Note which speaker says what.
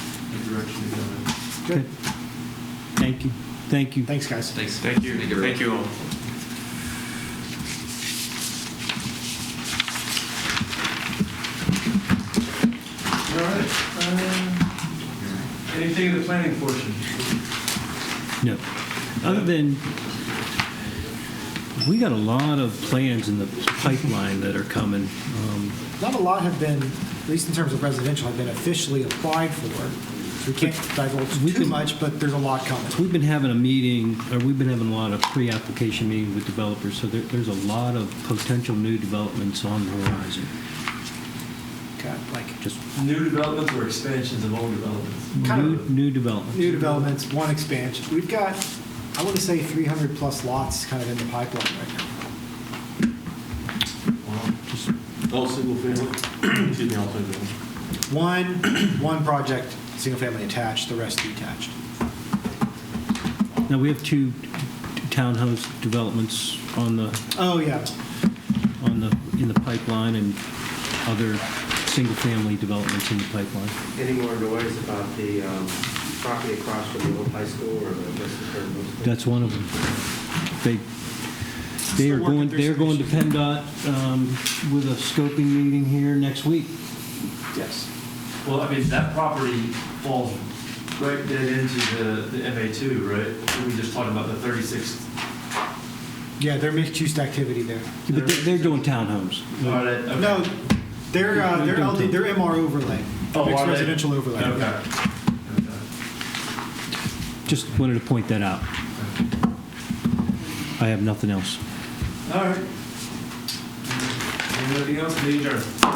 Speaker 1: direction to go in.
Speaker 2: Good.
Speaker 3: Thank you. Thank you.
Speaker 2: Thanks, guys.
Speaker 4: Thanks.
Speaker 5: Thank you. Thank you all.
Speaker 4: All right. uh, Anything in the planning portion?
Speaker 3: No. Other than, we got a lot of plans in the pipeline that are coming. Um,
Speaker 2: Not a lot have been, at least in terms of residential, have been officially applied for. So we can't
Speaker 3: We
Speaker 2: divulge too
Speaker 3: can-
Speaker 2: much, but there's a lot coming.
Speaker 3: We've been having a meeting, or we've been having a lot of pre-application meetings with developers, so there, there's a lot of potential new developments on the horizon.
Speaker 2: Okay, Like
Speaker 3: Just
Speaker 5: New developments or expansions of old developments?
Speaker 2: Kind
Speaker 3: new,
Speaker 2: of-
Speaker 3: new developments.
Speaker 2: new developments, one expansion. We've got, I want to say 300 plus lots kind of in the pipeline right now.
Speaker 1: All single family, excuse me, all single family.
Speaker 2: One, one project, single family attached, the rest detached.
Speaker 3: Now, we have two townhouse developments on the,
Speaker 2: Oh, yeah.
Speaker 3: on the, in the pipeline and other single-family developments in the pipeline.
Speaker 6: Any more noise about the um, property across from the old high school or the Western Current Middle School?
Speaker 3: That's one of them. They, they
Speaker 2: Still
Speaker 3: are
Speaker 2: working
Speaker 3: going,
Speaker 2: through
Speaker 3: they're
Speaker 2: some
Speaker 3: going to
Speaker 2: issues.
Speaker 3: PennDOT um, with a scoping meeting here next week.
Speaker 2: Yes.
Speaker 5: Well, I mean, that property falls right dead into the, the MA2, right? We were just talking about the 36th.
Speaker 2: Yeah, they're mixed-use activity there.
Speaker 3: But they're- they're doing townhomes.
Speaker 5: All right, okay.
Speaker 2: No, they're, uh, they're
Speaker 3: Don't-
Speaker 2: LD, they're MR overlay.
Speaker 5: Oh,
Speaker 2: Mixed
Speaker 5: are they?
Speaker 2: residential overlay.
Speaker 5: Okay. Okay.
Speaker 3: Just wanted to point that out. I have nothing else.
Speaker 5: All right. Anything else? Major.